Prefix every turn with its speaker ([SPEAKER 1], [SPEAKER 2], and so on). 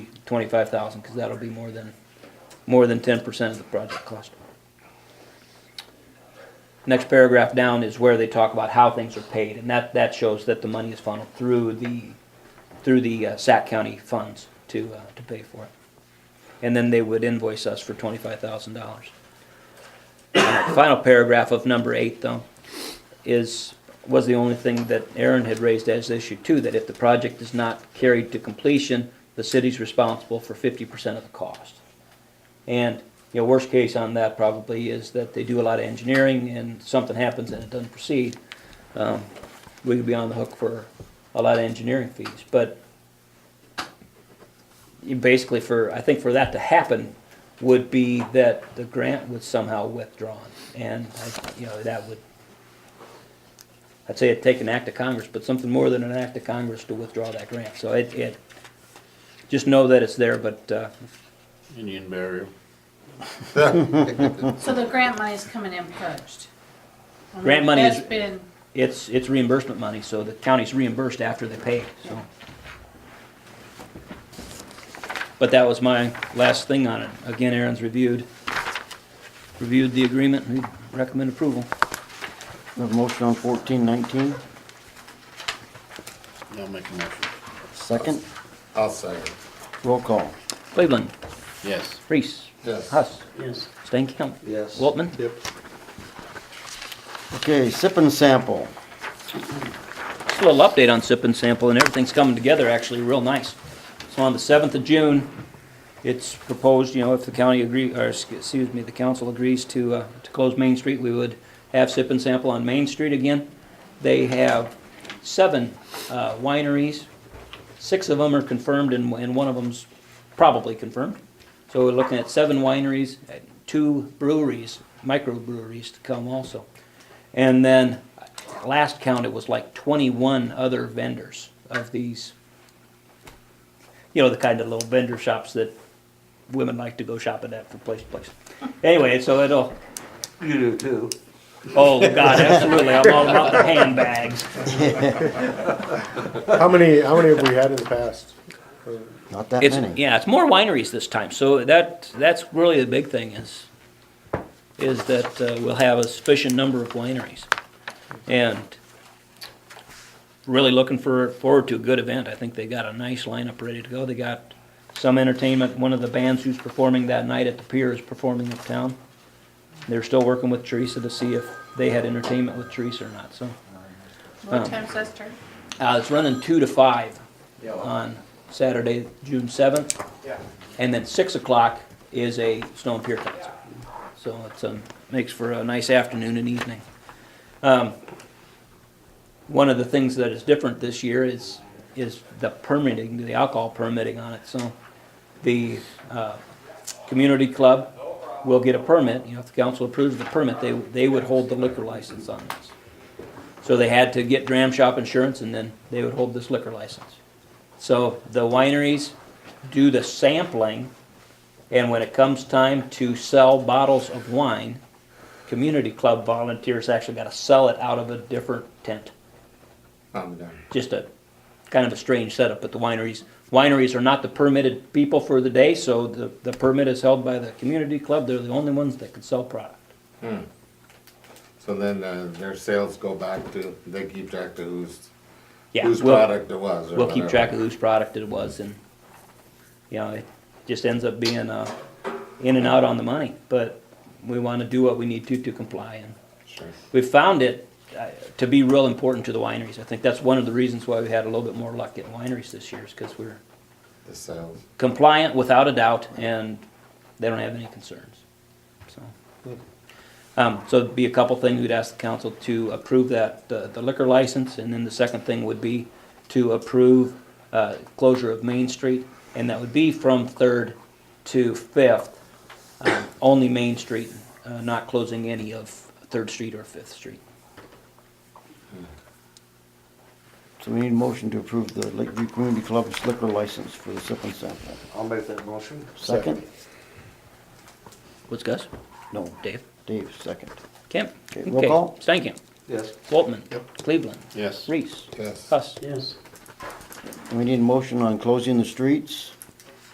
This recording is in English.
[SPEAKER 1] twenty-five thousand, because that'll be more than, more than ten percent of the project cost. Next paragraph down is where they talk about how things are paid, and that, that shows that the money is funneled through the, through the uh, Sac County funds to, uh, to pay for it. And then they would invoice us for twenty-five thousand dollars. Final paragraph of number eight, though, is, was the only thing that Aaron had raised as issue too, that if the project is not carried to completion, the city's responsible for fifty percent of the cost. And, you know, worst case on that probably is that they do a lot of engineering and something happens and it doesn't proceed. Um, We could be on the hook for a lot of engineering fees, but you basically for, I think for that to happen would be that the grant was somehow withdrawn. And, I- you know, that would, I'd say it'd take an act of Congress, but something more than an act of Congress to withdraw that grant. So it, it, just know that it's there, but, uh,
[SPEAKER 2] Indian burial.
[SPEAKER 3] So the grant money's coming in purged. I mean,
[SPEAKER 1] Grant money is-
[SPEAKER 3] That's been,
[SPEAKER 1] it's, it's reimbursement money, so the county's reimbursed after they pay, so. But that was my last thing on it. Again, Aaron's reviewed, reviewed the agreement, and recommend approval.
[SPEAKER 4] We have a motion on fourteen nineteen,
[SPEAKER 2] I'll make a motion.
[SPEAKER 4] second,
[SPEAKER 5] I'll second.
[SPEAKER 4] roll call.
[SPEAKER 1] Cleveland,
[SPEAKER 2] Yes.
[SPEAKER 1] Reese.
[SPEAKER 5] Yes.
[SPEAKER 1] Huss.
[SPEAKER 2] Yes.
[SPEAKER 1] Stankham.
[SPEAKER 5] Yes.
[SPEAKER 1] Waltman.
[SPEAKER 5] Yep.
[SPEAKER 4] Okay, sip and sample.
[SPEAKER 1] Just a little update on sip and sample, and everything's coming together actually real nice. So on the seventh of June, it's proposed, you know, if the county agree, or sc- excuse me, the council agrees to, uh, to close Main Street, we would have sip and sample on Main Street again. They have seven uh, wineries. Six of them are confirmed and, and one of them's probably confirmed. So we're looking at seven wineries, uh, two breweries, microbreweries to come also. And then, last count, it was like twenty-one other vendors of these, you know, the kind of little vendor shops that women like to go shopping at from place to place. Anyway, so it'll. You do too. Oh, God, absolutely, I'm all about the handbags.
[SPEAKER 6] How many, how many have we had in the past?
[SPEAKER 4] Not that
[SPEAKER 1] It's,
[SPEAKER 4] many.
[SPEAKER 1] yeah, it's more wineries this time, so that, that's really the big thing is, is that uh, we'll have a sufficient number of wineries. And really looking for, forward to a good event. I think they got a nice lineup ready to go. They got some entertainment, one of the bands who's performing that night at the pier is performing uptown. They're still working with Teresa to see if they had entertainment with Teresa or not, so.
[SPEAKER 3] what
[SPEAKER 1] Um,
[SPEAKER 3] time's that start?
[SPEAKER 1] Uh, it's running two to five on Saturday, June seventh. And then six o'clock is a Stone Pier concert. So it's, um, makes for a nice afternoon and evening. Um, one of the things that is different this year is, is the permitting, the alcohol permitting on it, so the, uh, community club will get a permit, you know, if the council approves the permit, they, they would hold the liquor license on this. So they had to get dram shop insurance and then they would hold this liquor license. So the wineries do the sampling and when it comes time to sell bottles of wine, community club volunteers actually gotta sell it out of a different tent.
[SPEAKER 5] I'm done.
[SPEAKER 1] Just a, kind of a strange setup, but the wineries, wineries are not the permitted people for the day, so the, the permit is held by the community club. They're the only ones that can sell product.
[SPEAKER 5] So then uh, their sales go back to, they keep track to whose,
[SPEAKER 1] Yeah,
[SPEAKER 5] whose
[SPEAKER 1] we'll-
[SPEAKER 5] product it was or
[SPEAKER 1] We'll keep
[SPEAKER 5] whatever.
[SPEAKER 1] track of whose product it was and, you know, it just ends up being, uh, in and out on the money. But we wanna do what we need to to comply and
[SPEAKER 5] Sure.
[SPEAKER 1] we found it uh, to be real important to the wineries. I think that's one of the reasons why we had a little bit more luck getting wineries this year is because we're
[SPEAKER 5] The sales.
[SPEAKER 1] compliant without a doubt and they don't have any concerns, so. Um, so it'd be a couple things, we'd ask the council to approve that, the the liquor license, and then the second thing would be to approve, uh, closure of Main Street, and that would be from Third to Fifth, um, only Main Street, uh, not closing any of Third Street or Fifth Street.
[SPEAKER 4] So we need a motion to approve the Lakeview Community Club's liquor license for the sip and sample.
[SPEAKER 7] I'll make that motion.
[SPEAKER 4] Second?
[SPEAKER 1] What's Gus?
[SPEAKER 4] No,
[SPEAKER 1] Dave?
[SPEAKER 4] Dave, second.
[SPEAKER 1] Kemp?
[SPEAKER 4] Okay, roll call.
[SPEAKER 1] Stankin?
[SPEAKER 7] Yes.
[SPEAKER 1] Waltman? Cleveland?
[SPEAKER 2] Yes.
[SPEAKER 1] Reese?
[SPEAKER 5] Yes.
[SPEAKER 1] Huss?
[SPEAKER 2] Yes.
[SPEAKER 4] We need a motion on closing the streets.